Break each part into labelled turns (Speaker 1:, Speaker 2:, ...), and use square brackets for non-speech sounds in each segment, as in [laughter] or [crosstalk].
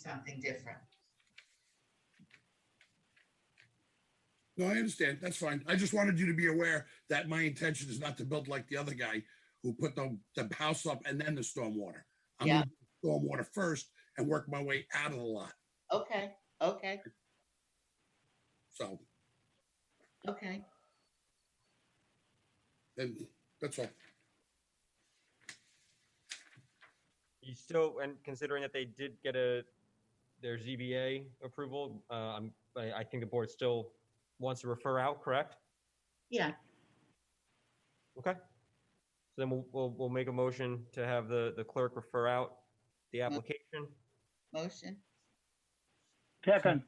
Speaker 1: something different.
Speaker 2: No, I understand. That's fine. I just wanted you to be aware that my intention is not to build like the other guy who put the, the house up and then the stormwater. I'm
Speaker 1: Yeah.
Speaker 2: gonna do stormwater first and work my way out of the lot.
Speaker 1: Okay, okay,
Speaker 2: So,
Speaker 1: okay.
Speaker 2: and that's all.
Speaker 3: You still, and considering that they did get a, their ZBA approval, uh, I'm, I, I think the board still wants to refer out, correct?
Speaker 1: Yeah,
Speaker 3: Okay. So then we'll, we'll, we'll make a motion to have the, the clerk refer out the application.
Speaker 1: motion.
Speaker 4: Second,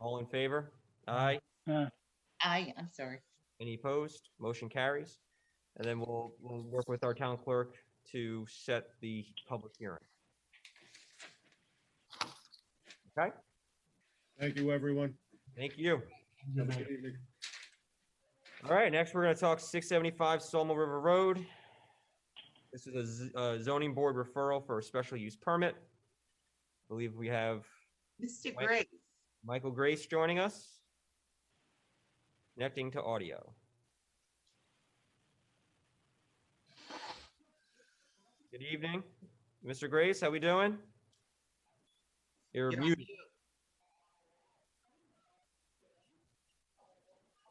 Speaker 3: All in favor? Aye.
Speaker 4: uh,
Speaker 1: I, I'm sorry.
Speaker 3: Any opposed? Motion carries. And then we'll, we'll work with our town clerk to set the public hearing.
Speaker 5: Thank you, everyone.
Speaker 3: Thank you.
Speaker 5: Have a good evening.
Speaker 3: All right, next we're gonna talk six seventy-five Solmo River Road. This is a z- uh, zoning board referral for a special use permit. Believe we have
Speaker 1: Mr.
Speaker 3: Wait.
Speaker 1: Gray,
Speaker 3: Michael Grace joining us. Connecting to audio. Good evening, Mr. Grace, how we doing? You're
Speaker 1: you're on
Speaker 3: mute,
Speaker 1: mute.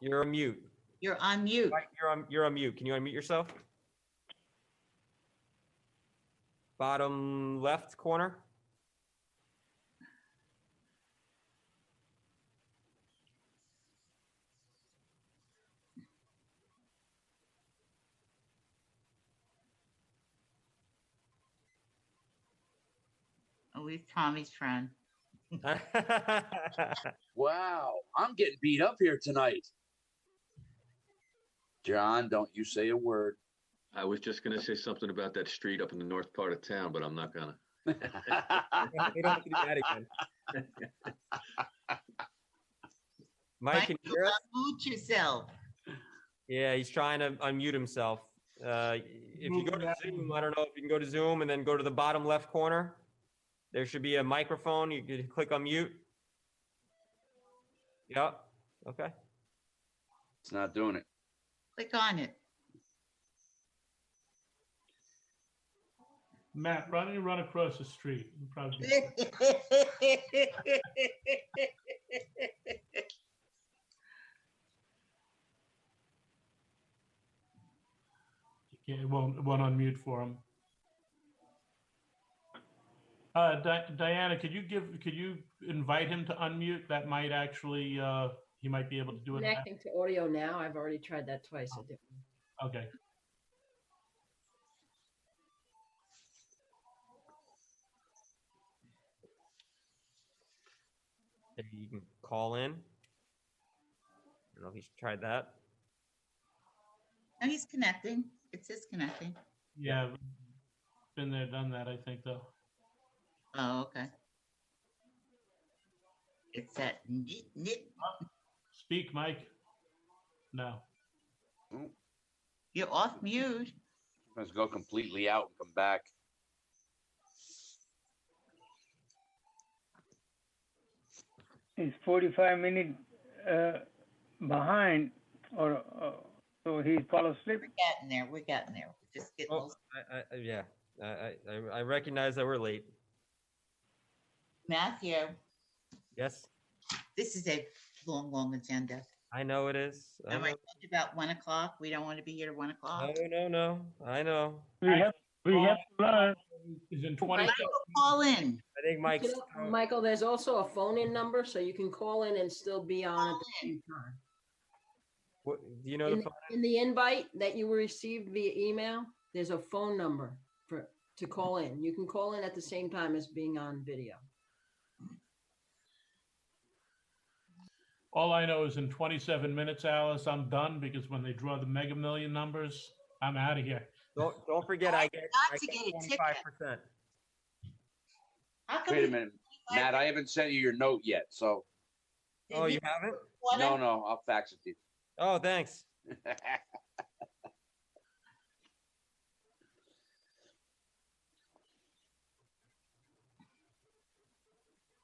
Speaker 3: you're on mute.
Speaker 1: You're on mute.
Speaker 3: Mike, You're on, you're on mute. Can you unmute yourself? Bottom left corner? [laughs]
Speaker 1: Always Oh, Tommy's friend.
Speaker 6: Wow, I'm getting beat up here tonight. John, don't you say a word. [laughs]
Speaker 7: I was just gonna say something about that street up in the north part of town, but I'm not gonna.
Speaker 3: They don't have to do that again. Mike, can you hear us?
Speaker 1: Unmute yourself.
Speaker 3: Yeah, he's trying to unmute himself. Uh, If you go to Zoom, I don't know if you can go to Zoom and then go to the bottom left corner. There should be a microphone. You could click unmute. Yep, okay.
Speaker 6: It's not doing it.
Speaker 1: Click on
Speaker 3: [laughs]
Speaker 1: it.
Speaker 8: Matt, why don't you run across the street? You probably- you can't- It won't, it won't unmute for him. Uh, Di- Diana, could you give, could you invite him to unmute? That might actually, uh, he might be able to do it. now.
Speaker 9: Connecting to audio now. I've already tried that twice. It didn't.
Speaker 8: Okay.
Speaker 3: Maybe you can call in. I don't know if he's tried that.
Speaker 1: No, he's connecting. It says connecting.
Speaker 8: Yeah. Been there, done that, I think, though.
Speaker 1: Oh, okay. It's that neat, neat.
Speaker 8: Speak, Mike. No.
Speaker 1: You're off mute.
Speaker 6: Let's go completely out and come back.
Speaker 4: he's forty-five minute, uh, behind, or, uh, so he fall asleep.
Speaker 1: We're getting there. We're getting there. We're Just getting.
Speaker 3: Oh,
Speaker 1: old.
Speaker 3: I, I, I- yeah, I, I, I- I recognize that we're late.
Speaker 1: Matthew,
Speaker 3: Yes,
Speaker 1: this is a long, long agenda.
Speaker 3: I know it is. I
Speaker 1: Am I
Speaker 3: know.
Speaker 1: talking about one o'clock? We don't want to be here at one o'clock.
Speaker 3: No, no, no, I know.
Speaker 4: We have, we have to learn.
Speaker 8: Is in
Speaker 1: Michael,
Speaker 8: twenty.
Speaker 1: call in.
Speaker 3: I think Mike's.
Speaker 9: You know, Michael, there's also a phone-in number, so you can call in and still be on at the
Speaker 1: Oh.
Speaker 9: same time.
Speaker 3: what- Do you know the,
Speaker 9: the-
Speaker 3: phone?
Speaker 9: In the invite that you received via email, there's a phone number for, to call in. You can call in at the same time as being on video.
Speaker 8: All I know is in 27 minutes, Alice, I'm done because when they draw the mega million numbers, I'm out of here.
Speaker 3: don't, don't forget, I get.
Speaker 1: Not
Speaker 3: I
Speaker 1: to get a ticket.
Speaker 3: Five percent.
Speaker 1: How come
Speaker 6: Wait a
Speaker 1: we-
Speaker 6: minute, Matt, I haven't sent you your note yet, so,
Speaker 3: Oh, you haven't?
Speaker 1: What
Speaker 6: no,
Speaker 1: I-
Speaker 6: no, I'll fax it to you. [laughs]
Speaker 3: Oh, thanks.